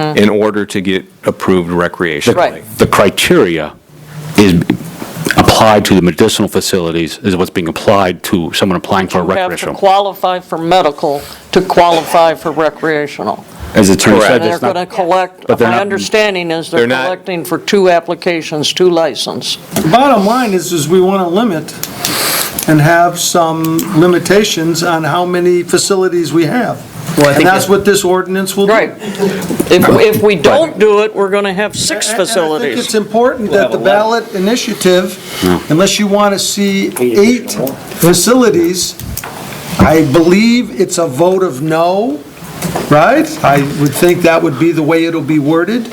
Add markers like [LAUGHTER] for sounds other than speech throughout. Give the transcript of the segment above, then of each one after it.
in order to get approved recreationally. Right. The criteria is applied to the medicinal facilities, is what's being applied to someone applying for a You have to recreational. qualify for medical to qualify for recreational. As the attorney And said, they're it's going to not, collect, but they're my not- understanding is they're They're not- collecting for two applications, two license. Bottom line is, is we want to limit and have some limitations on how many facilities we have. And that's what this ordinance will do. Right. If, if we don't do it, we're going to have six And- and I think facilities. it's important that the ballot initiative, unless you want to see eight facilities, I believe it's a vote of no, right? I would think that would be the way it'll be worded.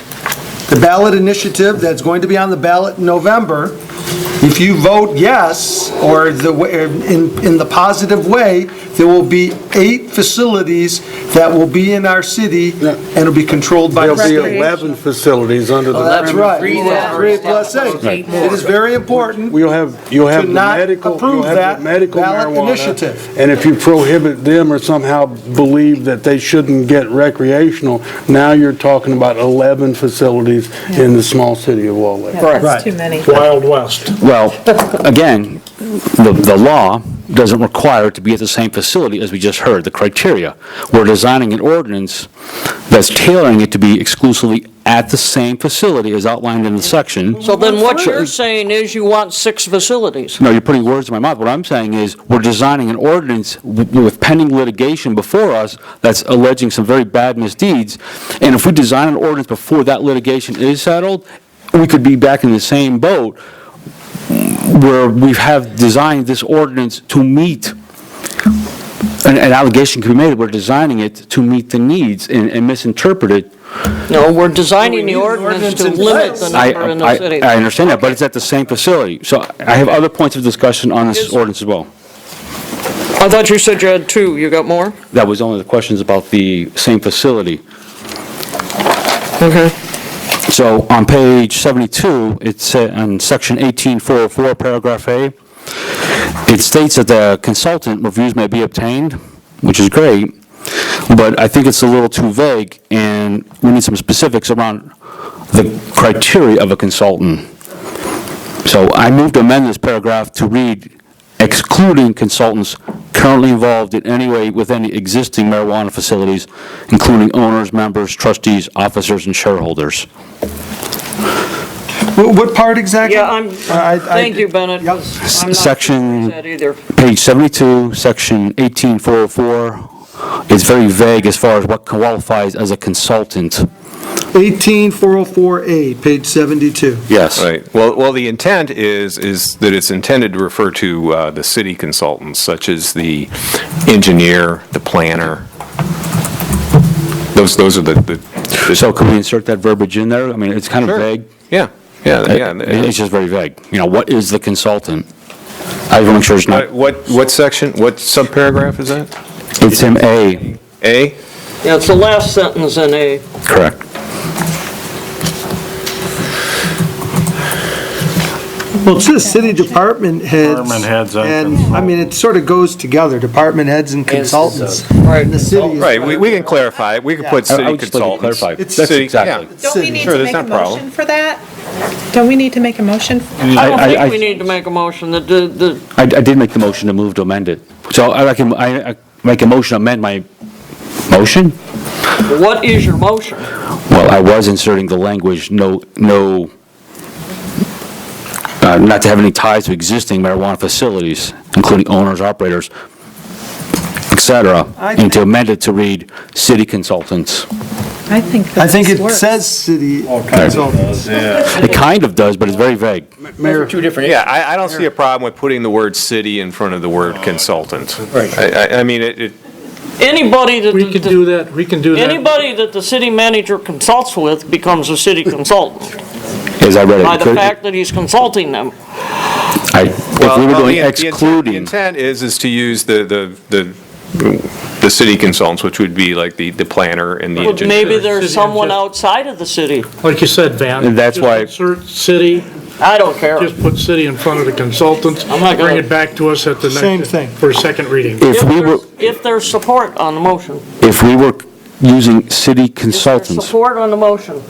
The ballot initiative that's going to be on the ballot in November, if you vote yes, or the, wa- in, in the positive way, there will be eight facilities that will be in our city and will be controlled by the There'll be state. 11 facilities under Oh, That's the, right. Three plus eight. It is very important. you'll have, you'll have To the not medical, approve you'll have that the medical ballot marijuana. initiative. And if you prohibit them or somehow believe that they shouldn't get recreational, now you're talking about 11 facilities in the small city of Wall Lake. Correct. Right. It's too many. Wild West. well, again, the, the law doesn't require it to be at the same facility as we just heard, the criteria. We're designing an ordinance that's tailoring it to be exclusively at the same facility as outlined in the section. So then what you're saying is you want six facilities. No, you're putting words in my mouth. What I'm saying is, we're designing an ordinance w- with pending litigation before us that's alleging some very bad misdeeds, and if we design an ordinance before that litigation is settled, we could be back in the same boat where we have designed this ordinance to meet, an an allegation could be made, we're designing it to meet the needs and and misinterpret it. No, we're designing We the need an ordinance to ordinance in limit the place. I, number in the city. I I understand that, but it's at the same facility. So I have other points of discussion on this Is- ordinance as well. I thought you said you had two. You got more? That was only the questions about the same facility. Okay. So on page 72, it's uh, in section 18404, paragraph A, it states that the consultant reviews may be obtained, which is great, but I think it's a little too vague, and we need some specifics around the criteria of a consultant. So I move to amend this paragraph to read excluding consultants currently involved in any way with any existing marijuana facilities, including owners, members, trustees, officers, and shareholders. Wh- What part exactly? Yeah, I'm, I- I- thank you, Bennett. Yep. I'm not Section- sure that either. Page 72, section 18404, is very vague as far as what qualifies as a consultant. 18404A, page 72. Yes. Right. Well, well, the intent is, is that it's intended to refer to uh, the city consultants, such as the engineer, the planner. Those, those are the- the. So could we insert that verbiage in there? I mean, it's kind of Sure. vague. Yeah, yeah, uh, yeah. It- It's just very vague. You know, what is the consultant? I want to make sure it's Uh, not, What, what section, what subparagraph is that? it's in A. A? Yeah, it's the last sentence in A. Correct. Well, it says city department heads. Department heads and And, I mean, it sort of goes together, department heads and consultants. Right. And the city is- Right, we, we can clarify, it. we can put I- I city would just like to consultants. clarify. It's City- That's exactly. yeah. Don't we need Sure, to there's make a no problem. motion for that? Don't we need to make a motion? I I- don't I- think we need to make a motion. The, the- the, I, I did make the motion to move to amend it. So I reckon, I I make a motion to amend my motion? what is your motion? Well, I was inserting the language, no, no, uh, not to have any ties to existing marijuana facilities, including owners, operators, et cetera, and to amend it to read city consultants. I think I that think this it works. says city consultants. It kind of does, but it's very vague. Yeah, I, I don't see a problem with putting the word city in front of the word consultant. Right. I, I- I mean, it, it- Anybody that. We can do that, we can do that. Mm, Anybody that the city manager consults with becomes a city [LAUGHS] consultant As I read it. by the could- fact that he's consulting them. I- If Well, we were well, doing the- the intent- The excluding, intent is, is to use the, the, the the city consultants, which would be like the, the planner and the But engineer. maybe there's City someone adjust- outside of the city. Like you said, Van. And that's just why- Insert city, I don't care. just put city in front of the consultants. I'm not gonna- Bring it back to us at the next. Same thing. For a second reading. if If we were, there's, if there's support on the motion. if we were using city Is there consultants. Support on the motion.